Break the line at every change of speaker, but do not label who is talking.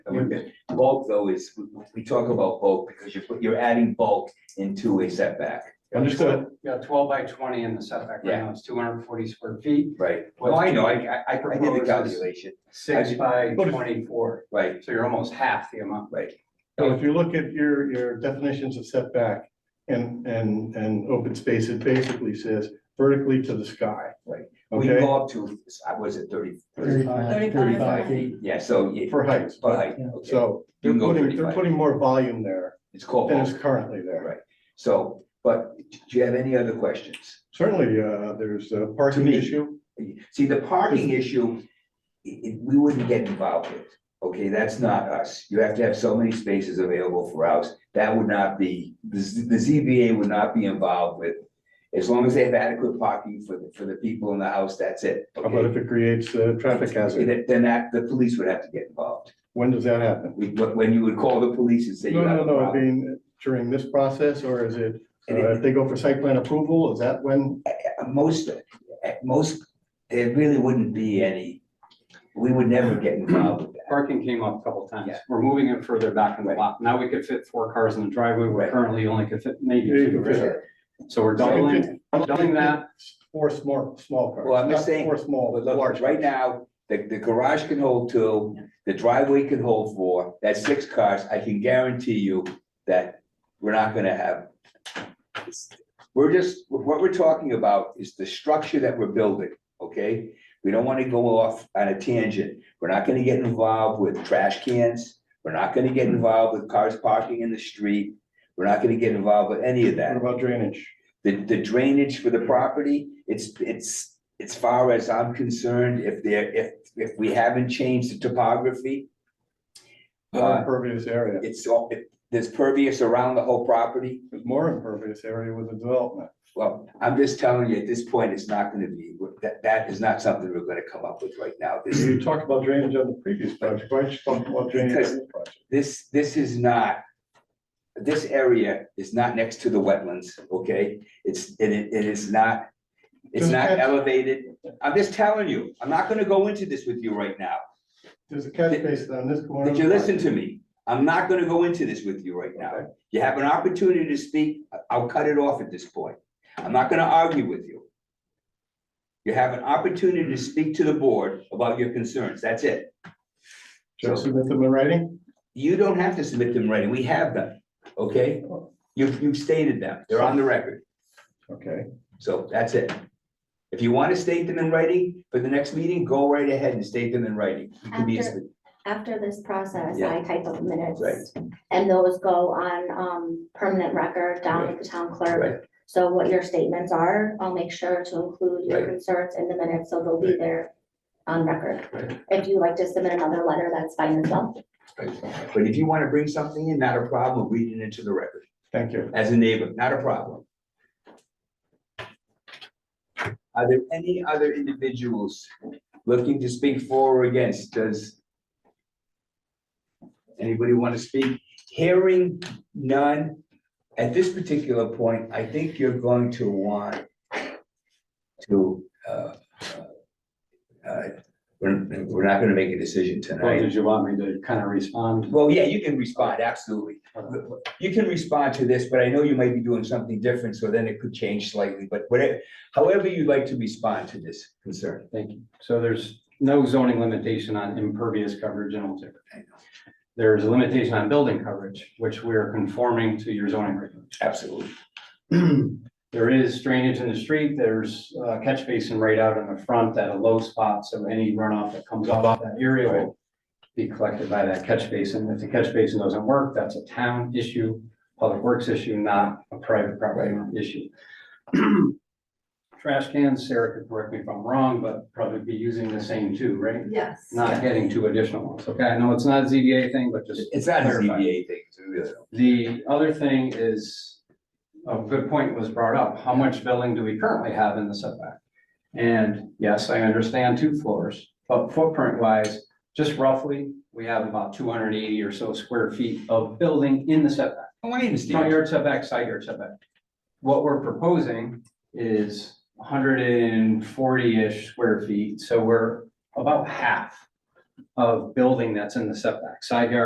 Bulk though is, we, we talk about bulk because you're, you're adding bulk into a setback,
Understood.
Yeah, twelve by twenty in the setback right now, it's two hundred and forty square feet,
right? Well, I know, I, I, I did the
Proposes.
calculation,
six by
But if-
twenty-four,
right,
so you're almost half the amount.
right,
So if you look at your, your definitions of setback and, and, and open space, it basically says vertically to the sky.
right. We
Okay,
go up to, I was it thirty?
Thirty-five.
35
feet.
Yeah, so, yeah,
for heights.
but I, okay,
So
You
they're
can go
putting, they're
35.
putting more volume there
it's called
than is
bulk,
currently there.
Right. so, but do you have any other questions?
Certainly, uh, there's a parking
me.
issue.
See, the parking issue, i- i- we wouldn't get involved with, okay, that's not us. You have to have so many spaces available for us. That would not be, the, Z- the ZBA would not be involved with. As long as they have adequate parking for, the for the people in the house, that's it.
How about
okay?
if it creates a traffic hazard?
Then- Then that, the police would have to get involved.
When does that happen?
We, when when you would call the police and say you
No,
have
no,
a
no, I
problem.
mean, during this process, or is it,
It-
uh, if they go for site plan approval, is that when?
At most, at most, there really wouldn't be any, we would never get involved with that.
Parking came up a couple times,
Yeah.
we're moving it further back in the lot, now we could fit four cars in the driveway, we
Right.
currently only could fit maybe
Yeah, you
two,
can fit
right? so we're doubling, doubling that.
Four small, small cars.
Well, I'm just
not
saying-
Four small,
But
but
look,
large.
right
cars.
now, the, the garage can hold two, the driveway can hold four, that's six cars, I can guarantee you that we're not gonna have. We're just, what we're talking about is the structure that we're building, okay? We don't wanna go off on a tangent, we're not gonna get involved with trash cans, we're not gonna get involved with cars parking in the street. We're not gonna get involved with any of that.
What about drainage?
The, the drainage for the property, it's, it's, as far as I'm concerned, if there, if, if we haven't changed the topography.
More
Uh,
impervious area,
it's all, it- there's pervious around the whole property.
there's more impervious area with the development.
Well, I'm just telling you, at this point, it's not gonna be, that, that is not something we're gonna come up with right now. This,
You talked about drainage on the previous project, why don't you talk about drainage on this project?
this, this is not. This area is not next to the wetlands, okay? It's, and it, it is not, it's
Does
not
that-
elevated. I'm just telling you, I'm not gonna go into this with you right now.
There's a catch
Did-
basin on this corner.
Did you listen to me? I'm not gonna go into this with you right now. You have an opportunity to speak, I- I'll cut it off at this point. I'm not gonna argue with you. You have an opportunity to speak to the board about your concerns, that's it.
Should I submit them in writing?
You don't have to submit them right, we have them, okay? You've, you've stated them, they're on the record,
Okay,
so that's it. If you wanna state them in writing for the next meeting, go right ahead and state them in writing. You can be as-
After this process,
Yeah.
I type up minutes.
Right.
And those go on um permanent record down at the town
Right.
clerk. So what your statements are, I'll make sure to include your
Right.
concerns in the minutes, so they'll be there on record.
Right.
If you like to submit another letter, that's fine as well.
But if you wanna bring something in, not a problem, read it into the record.
thank you.
as a neighbor, not a problem. Are there any other individuals looking to speak for or against? Does anybody want to speak? Hearing none. At this particular point, I think you're going to want to, uh, uh, we're, we're not going to make a decision
Well,
tonight.
did you want me to kind of respond?
Well, yeah, you can respond, absolutely. You can respond to this, but I know you might be doing something different, so then it could change slightly, but whatever, however you'd like to respond to this concern.
Thank you. So there's no zoning limitation on impervious coverage in Old Tipper. There's a limitation on building coverage, which we're conforming to your zoning regulations.
Absolutely.
There is drainage in the street, there's a catch basin right out in the front at a low spot, so any runoff that comes off that area will be collected by that catch basin. If the catch basin doesn't work, that's a town issue, public works issue, not a private property owner issue. Trash cans, Sarah could correct me if I'm wrong, but probably be using the same two, right?
Yes.
Not getting two additional ones, okay? I know it's not a ZBA thing, but just
It's not a ZBA thing, it's really-
the other thing is, a good point was brought up, how much building do we currently have in the setback? And yes, I understand two floors, but footprint wise, just roughly, we have about two hundred and eighty or so square feet of building in the setback
I want to
front
understand.
yard setback, side yard setback. What we're proposing is hundred and forty-ish square feet, so we're about half of building that's in the setback, side yard